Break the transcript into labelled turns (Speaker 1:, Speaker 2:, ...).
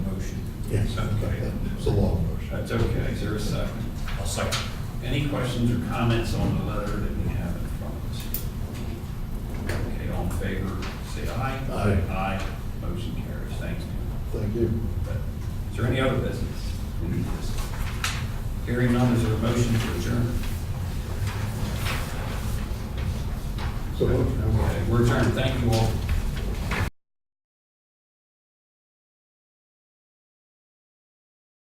Speaker 1: Yes,
Speaker 2: Okay.
Speaker 1: it's a long version.
Speaker 2: That's okay, is there a second?
Speaker 3: I'll second.
Speaker 2: Any questions or comments on the letter that we have in front of us? Okay, all in favor, say aye.
Speaker 1: Aye.
Speaker 2: Aye, motion carries, thank you.
Speaker 1: Thank you.
Speaker 2: Is there any other business? Any business? Hearing none, is there a motion to adjourn?
Speaker 1: So,
Speaker 2: Okay, we're adjourned, thank you all.